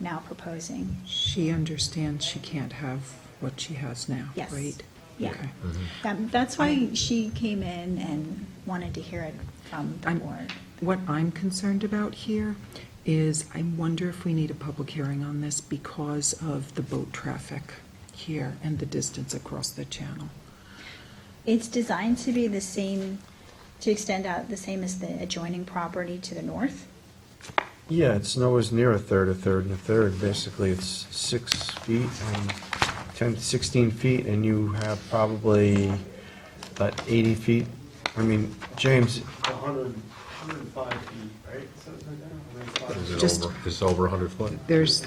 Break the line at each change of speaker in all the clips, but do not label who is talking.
now proposing.
She understands she can't have what she has now,
Yes.
right?
Yeah.
Okay.
That- That's why she came in and wanted to hear it from the
I'm-
board.
What I'm concerned about here is I wonder if we need a public hearing on this because of the boat traffic here and the distance across the channel.
It's designed to be the same, to extend out the same as the adjoining property to the north.
Yeah, it's nowhere near a third, a third, and a third. Basically, it's six feet and 10, 16 feet, and you have probably about 80 feet. I mean, James,
100, 105 feet, right? Something like that, 105.
Is it
Just-
over, is it over 100 foot?
There's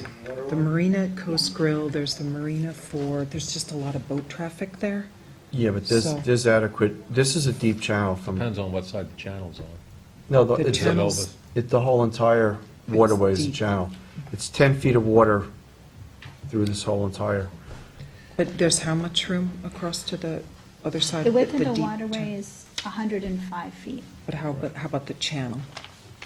the marina at Coast Grill, there's the marina for, there's just a lot of boat traffic there.
yeah, but there's,
So-
there's adequate, this is a deep channel from,
Depends on what side the channel's on.
no, the-
The
it's,
channels,
it- the whole entire waterway is a
deep.
channel. It's 10 feet of water through this whole entire,
but there's how much room across to the other side?
The width of the
deep
waterway
channel?
is 105 feet.
But how, but how about the channel?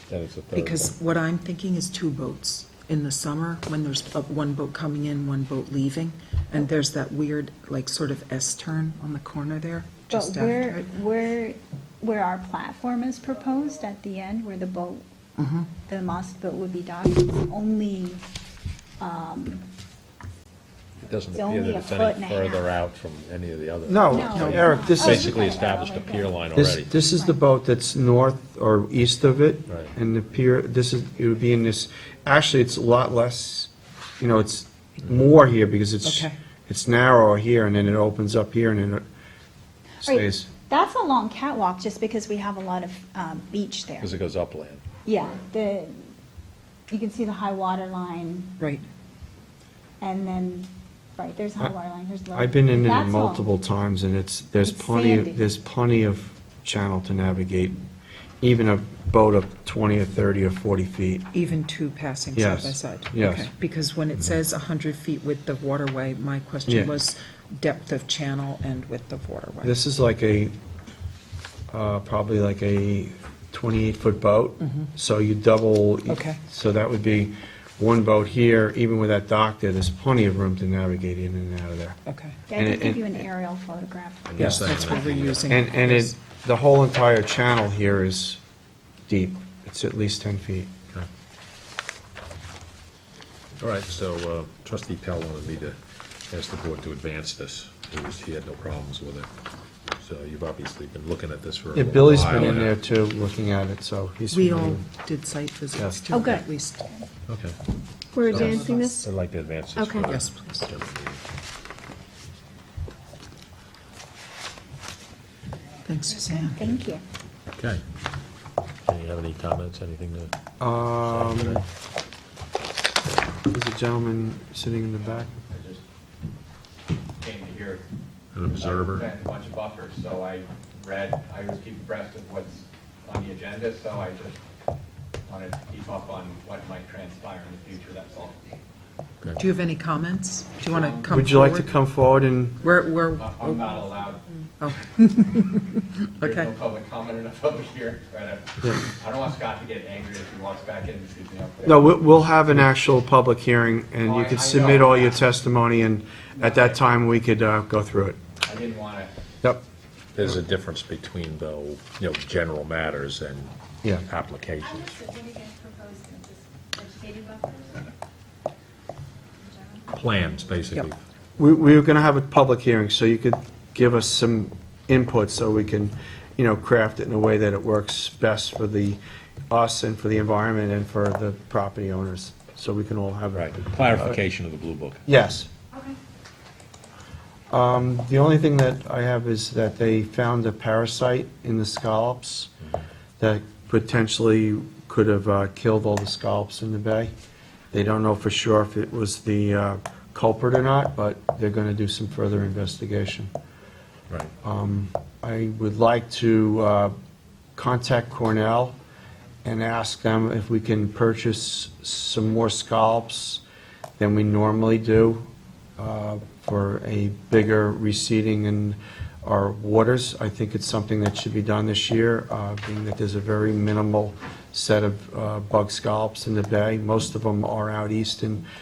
Then it's a third.
Because what I'm thinking is two boats in the summer, when there's uh, one boat coming in, one boat leaving, and there's that weird, like, sort of S-turn on the corner there,
But
just after
where,
it.
where, where our platform is proposed at the end, where the boat, the mast boat would be docked, it's only,
It doesn't
It's
appear
only
that
a
it's
foot and a
any further
half.
out from any of the other.
No,
No.
Eric, this
Oh,
is.
you
Basically
got it out
established a
like that.
pier line
This,
already.
this is the boat that's north or east of it.
Right.
And the pier, this is, it would be in this, actually, it's a lot less, you know, it's
Mm-hmm.
more here because it's,
Okay.
it's narrower here and then it opens up here and then it
Right.
stays.
That's a long catwalk, just because we have a lot of um, beach there.
Because it goes upland.
Yeah, the, you can see the high water line,
Right,
and then, right, there's high water line, there's low.
I've been in it
That's all.
multiple times and it's, there's
It's
plenty,
sandy.
of there's plenty of channel to navigate, even a boat of 20 or 30 or 40 feet.
even two passing side
Yes,
by side?
yes. Mm-hmm.
Okay, Because when it says 100 feet width of waterway, my
Yeah.
question was depth of channel and width of waterway.
This is like a, uh, probably like a 28-foot boat. So you double.
Mm-hmm. Okay.
So that would be one boat here, even with that dock there, there's plenty of room to navigate in and out of there.
Okay,
Yeah, I
and
can
it-
give
and-
you an aerial photograph.
Yeah.
Yes,
that's what we're using.
And, and it, the whole entire channel here is deep. It's at least 10 feet.
All right, so uh, trustee Pell wanted me to ask the board to advance this. He was, he had no problems with it. So you've obviously been looking at this for a
Yeah,
little while.
Billy's been in
now.
there too, looking at it, so he's.
We all
familiar.
did site visits
Yes.
too,
Oh, good.
at least.
Okay.
We're advancing this?
I'd like to advance this.
Okay.
further.
Yes, please. Thanks, Suzanne.
Thank you.
Okay. Do you have any comments, anything to?
Um, There's a gentleman sitting in the back.
I just came to hear.
An observer.
I've been A bunch of buffers, so I read, I always keep abreast of what's on the agenda, so I just wanted to keep up on what might transpire in the future, that's all.
Do you have any comments? Do you want to come forward?
Would you like to come forward and?
We're, we're,
I- I'm not allowed,
oh,
there's no
Okay.
public comment in a public hearing, right? I- I don't want Scott to get angry if he walks back in and sees me up there.
No, we- we'll have an actual public hearing, and you
Oh, I- I
could submit
know.
all your testimony, and at that time, we could uh, go through it.
I didn't want to
Yep.
There's a difference between though, you know, general matters and
Yeah.
applications.
What do you guys propose, just vegetative buffers?
Plans, basically.
Yep.
We we were going to have a public hearing, so you could give us some input, so we can, you know, craft it in a way that it works best for the, us and for the environment and for the property owners, so we can all have.
Right, clarification of the blue book.
Yes.
Okay.
Um, The only thing that I have is that they found a parasite in the scallops that potentially could have uh, killed all the scallops in the bay. They don't know for sure if it was the uh, culprit or not, but they're going to do some further investigation.
Right.
I would like to uh, contact Cornell and ask them if we can purchase some more scallops than we normally do uh, for a bigger reseeding in our waters. I think it's something that should be done this year, uh, being that there's a very minimal set of uh, bug scallops in the bay. Most of them are out east in